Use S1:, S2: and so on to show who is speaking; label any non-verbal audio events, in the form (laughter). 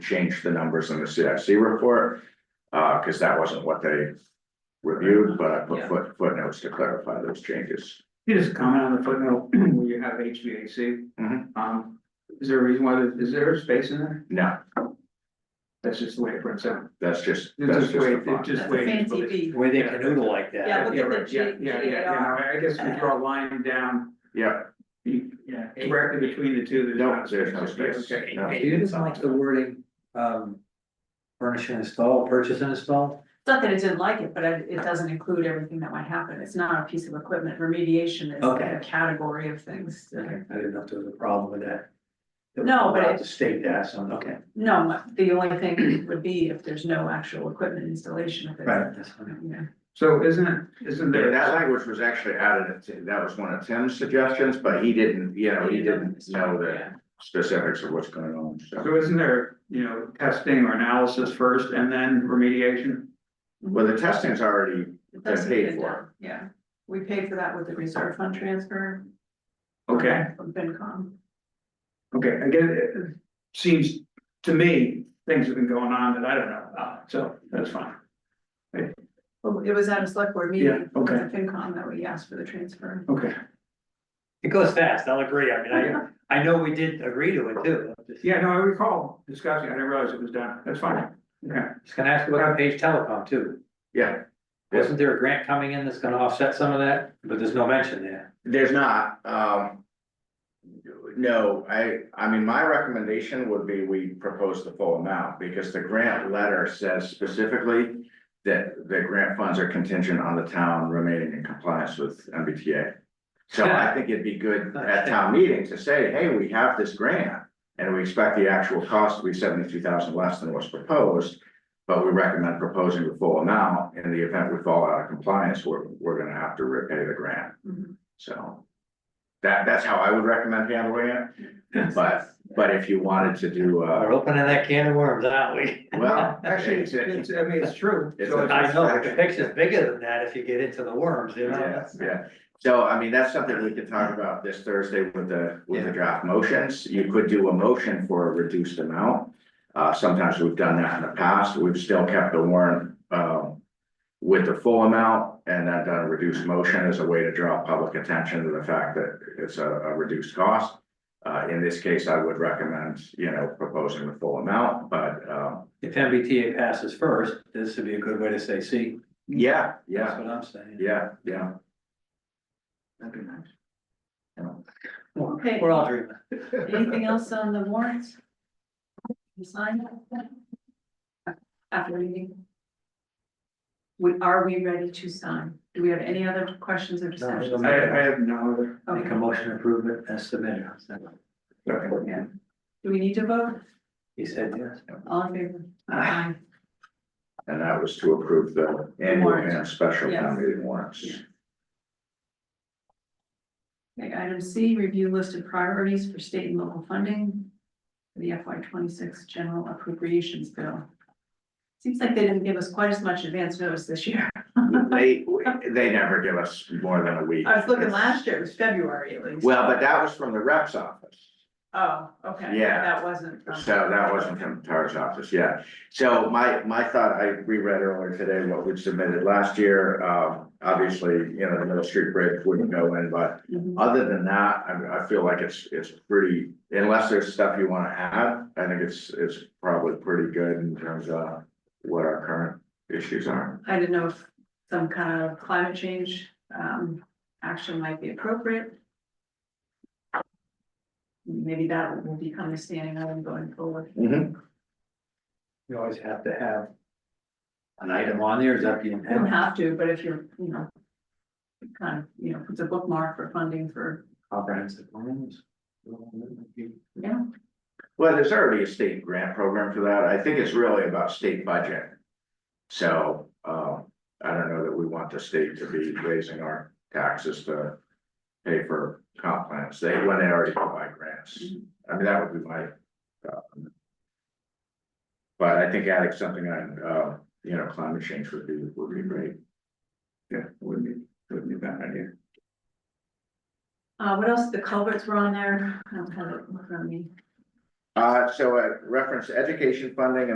S1: changed the numbers in the CIC report. Uh, cause that wasn't what they reviewed, but I put
S2: Yeah.
S1: foot footnotes to clarify those changes.
S2: You just comment on the footnote (clears throat) where you have HVAC.
S1: Mhm.
S2: Um, is there a reason why, there- is there a space in there?
S1: No,
S2: That's just the way it prints out.
S1: that's just,
S2: It's
S1: that's
S2: just
S1: just
S2: way,
S1: the
S2: it's
S1: font.
S2: just
S3: That's a
S2: way. it's
S3: fancy
S2: put it-
S3: V.
S4: Where they canoodle like that.
S3: Yeah, look
S2: Yeah,
S3: at the
S2: right, yeah,
S3: G-
S2: yeah, yeah, yeah, I guess we draw a line down,
S1: Yeah,
S2: be- yeah, directly between the two, there's
S1: No,
S2: not
S1: there's no
S2: space.
S1: space.
S2: Okay.
S1: No.
S4: Do you just like the wording, um, furnish and install, purchase and install?
S3: It's Not that I didn't like it, but it, it doesn't include everything that might happen. It's not a piece of equipment. Remediation is
S4: Okay.
S3: a category of things. that are-
S4: I didn't know if there was a problem with that.
S3: No, but it-
S4: The state asked, on- okay,
S3: No, the only thing would be if there's no actual equipment installation of it.
S4: right, that's fine.
S3: Yeah,
S2: So isn't it, isn't
S1: There-
S2: there?
S1: that language was actually added, to- that was one of Tim's suggestions, but he didn't, you know, he didn't know the
S3: yeah.
S1: specifics of what's going on, so.
S2: So isn't there, you know, testing or analysis first and then remediation?
S1: Well, the testing's already
S3: It
S1: been
S3: doesn't
S1: paid
S3: get
S1: for,
S3: done, Yeah, we paid for that with the reserve fund transfer.
S2: Okay,
S3: From FinCom.
S2: okay, again, it it seems to me, things have been going on that I don't know about, so that's fine.
S3: Well, it was at a select board meeting.
S2: Yeah, okay.
S3: with the FinCom that we asked for the transfer.
S2: Okay,
S4: It goes fast, I'll agree, I mean, I, I know we did agree to it too. I'm Just
S2: yeah, no, I recall discussing, I didn't realize it was done, that's fine, okay.
S4: just gonna ask about Page Telecom too.
S1: yeah.
S4: Wasn't there a grant coming in that's gonna offset some of that? But there's no mention there.
S1: There's not, um. No, I, I mean, my recommendation would be we propose the full amount, because the grant letter says specifically. That the grant funds are contingent on the town remaining in compliance with MBTA. So I think it'd be good at town meeting to say, hey, we have this grant. And we expect the actual cost to be seventy-two thousand less than what's proposed. But we recommend proposing the full amount, in the event we fall out of compliance, we're, we're gonna have to repay the grant.
S3: Mhm.
S1: So. That, that's how I would recommend handling it, but, but if you wanted to do, uh,
S4: We're opening that can of worms, aren't we?
S1: well.
S2: Actually, it's, it's, I mean, it's true.
S1: It's
S2: So
S1: a-
S4: I know, but the picture's bigger than that if you get into the worms, you know?
S1: Yeah, yeah. so I mean, that's something we could talk about this Thursday with the, with the draft motions, you could do a motion for a reduced amount. Uh, sometimes we've done that in the past, we've still kept the warrant, um. With the full amount and then done a reduced motion as a way to draw public attention to the fact that it's a, a reduced cost. Uh, in this case, I would recommend, you know, proposing the full amount, but, um,
S4: If MBTA passes first, this would be a good way to say, see,
S1: yeah, yeah,
S4: that's what I'm saying.
S1: yeah, yeah.
S2: That'd be nice.
S3: Okay.
S4: We're all dreaming.
S3: Anything else on the warrants? You sign it? After reading? We, are we ready to sign? Do we have any other questions or discussions?
S4: no.
S2: I, I have no other.
S4: Make a
S3: Okay,
S4: motion to approve it as submitted.
S3: yeah. Do we need to vote?
S4: He said yes.
S3: All in favor?
S4: Aye.
S1: And that was to approve the annual
S3: Warrant.
S1: and special
S3: Yes.
S1: town meeting warrants.
S3: Yeah. Okay, item C, review listed priorities for state and local funding. for The FY twenty-six general appropriations bill. Seems like they didn't give us quite as much advance notice this year. (laughs)
S1: They, they never give us more than a week.
S3: I was looking last year, it was February at least.
S1: Well, but that was from the rep's office,
S3: Oh, okay.
S1: Yeah.
S3: That wasn't. from-
S1: so that wasn't from Tara's office, yeah. So my, my thought, I reread earlier today what we submitted last year, um, obviously, you know, the Middle Street Bridge wouldn't go in, but
S3: Mhm.
S1: Other than that, I, I feel like it's, it's pretty, unless there's stuff you wanna add, I think it's, it's probably pretty good in terms of what our current issues are.
S3: I didn't know if some kind of climate change um action might be appropriate. Maybe that will become a standing item going forward.
S4: You always have to have an item on there, is that the
S3: You don't
S4: intent?
S3: have to, but if you're, you know. Kind of, you know, puts a bookmark for funding for,
S4: Comprehensive plans.
S3: yeah,
S1: Well, there's already a state grant program for that, I think it's really about state budget. So, um, I don't know that we want the state to be raising our taxes to pay for comp plans, they, when they already provide grants. I mean, that would be my. um, But I think adding something on, uh, you know, climate change would be, would be great.
S2: Yeah, wouldn't be, wouldn't be a bad idea.
S3: uh, what else? The culverts were on there. I don't have it in front of me.
S1: Uh, so I reference education funding